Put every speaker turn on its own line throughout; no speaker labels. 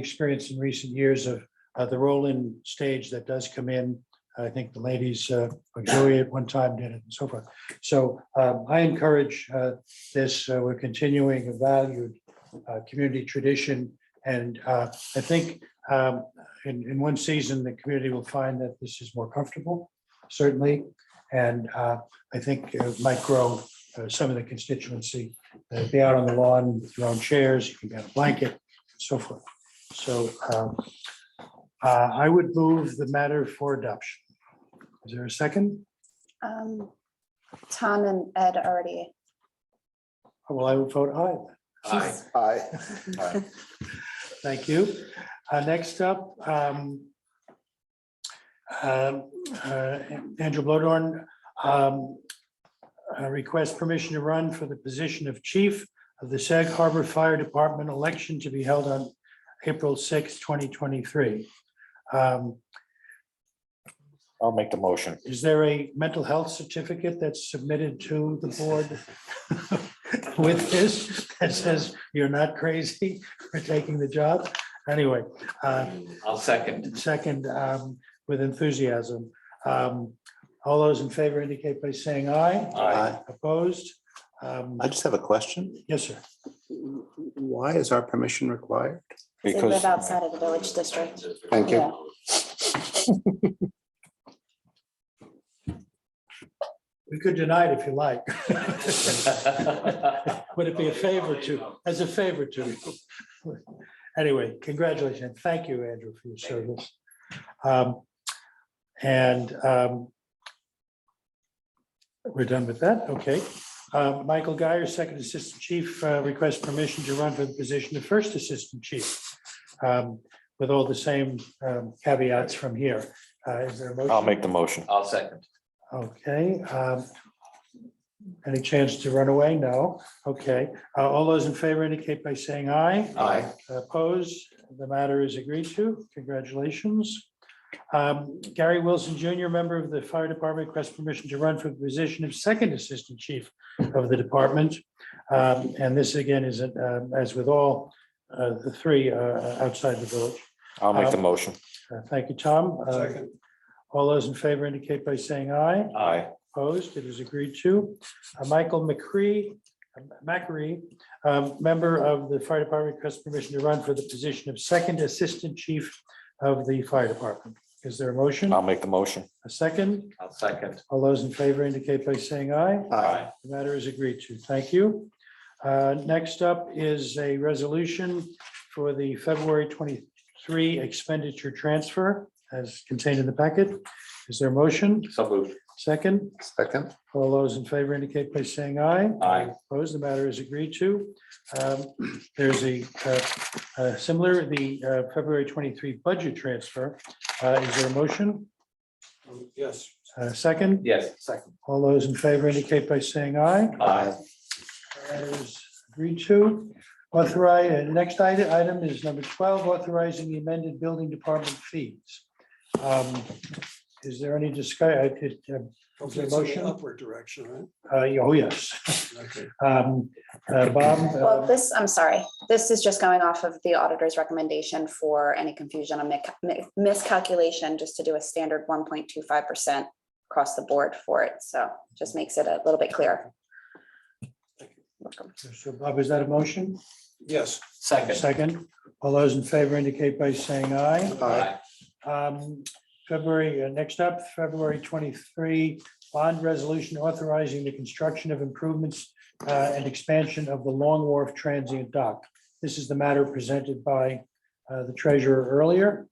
experience in recent years of uh, the roll-in stage that does come in. I think the ladies, uh, like Joey at one time did it and so forth. So um, I encourage uh, this, uh, we're continuing a valued uh, community tradition. And uh, I think um, in, in one season, the community will find that this is more comfortable, certainly. And uh, I think it might grow uh, some of the constituency, Uh, be out on the lawn, with your own chairs, you can get a blanket, so forth. So um, uh, I would move the matter for adoption. Is there a second?
Um, Tom and Ed already.
Well, I would vote aye. then.
Aye.
Aye.
Thank you. Uh, Next up, um, um, uh, Andrew Blodorn um, uh, requests permission to run for the position of chief of the Sag Harbor Fire Department election to be held on April 6, 2023. Um,
I'll make the motion.
Is there a mental health certificate that's submitted to the board with this that says you're not crazy for taking the job? Anyway, uh,
I'll second.
second, um, with enthusiasm. Um, All those in favor indicate by saying aye.
Aye.
Opposed? Um,
I just have a question.
Yes, sir.
Why is our permission required?
They live
Because,
outside of the village district.
thank you.
Yeah.
We could deny it if you like. Would it be a favor to, as a favor to you? Anyway, congratulations. and Thank you, Andrew, for your service. Um, And um, we're done with that. Okay. Uh, Michael Guyer, Second Assistant Chief, uh, requests permission to run for the position of First Assistant Chief um, with all the same um, caveats from here. Uh, Is there a motion?
I'll make the motion.
I'll second.
Okay. um, Any chance to run away? No. Okay. Uh, All those in favor indicate by saying aye.
Aye.
Opposed? The matter is agreed to. Congratulations. Um, Gary Wilson Jr., member of the Fire Department, requests permission to run for the position of Second Assistant Chief of the department. Um, And this again is, uh, as with all uh, the three uh, outside the village.
I'll make the motion.
Uh, Thank you, Tom. Uh,
Second.
All those in favor indicate by saying aye.
Aye.
Opposed, it is agreed to. Uh, Michael McCree, uh, McCree, um, member of the fire department, requests permission to run for the position of second assistant chief of the fire department. Is there a motion?
I'll make the motion.
A second?
I'll second.
All those in favor indicate by saying aye.
Aye.
The matter is agreed to. Thank you. Uh, Next up is a resolution for the February 23 expenditure transfer as contained in the packet. Is there a motion?
So moved.
Second?
Second.
All those in favor indicate by saying aye.
Aye.
Opposed, the matter is agreed to. Um, There's a uh, uh, similar, the uh, February 23 budget transfer. Uh, Is there a motion?
Yes.
Uh, Second,
Yes. Second.
all those in favor indicate by saying aye.
Aye.
That is agreed to. Authorize, uh, next item, item is number 12, authorizing the amended building department fees. Um, Is there any discussion? Is there a motion?
Upward direction, right?
Oh, yes.
Okay.
Um, uh, Bob?
Well,
uh,
this, I'm sorry, this is just going off of the auditor's recommendation for any confusion or mic- mi- miscalculation, just to do a standard one point two five percent across the board for it. So just makes it a little bit clearer. Welcome.
So Bob, is that a motion?
Yes,
Second.
Second, all those in favor indicate by saying aye.
Aye.
Um, February, uh, next up, February twenty-three, bond resolution authorizing the construction of improvements uh, and expansion of the Long Wharf Transient Dock. This is the matter presented by uh, the treasurer earlier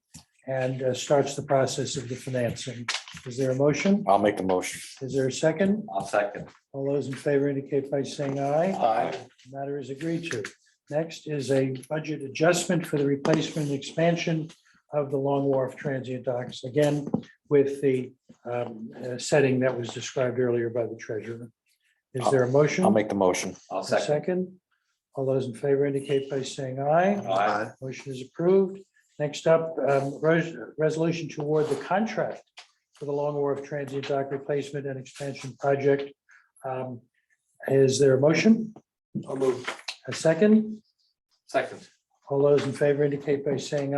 and uh, starts the process of the financing. Is there a motion?
I'll make the motion.
Is there a second?
I'll second.
All those in favor indicate by saying aye.
Aye.
The Matter is agreed to. Next is a budget adjustment for the replacement and expansion of the Long Wharf Transient Docks, again, with the um, uh, setting that was described earlier by the treasurer. Is there a motion?
I'll make the motion.
I'll
A
second.
Second, all those in favor indicate by saying aye.
Aye.
Motion is approved. Next up, um, res- resolution to award the contract for the Long Wharf Transient Dock Replacement and Expansion Project. Um, Is there a motion?
I'll move.
A second?
Second.
All those in favor indicate by saying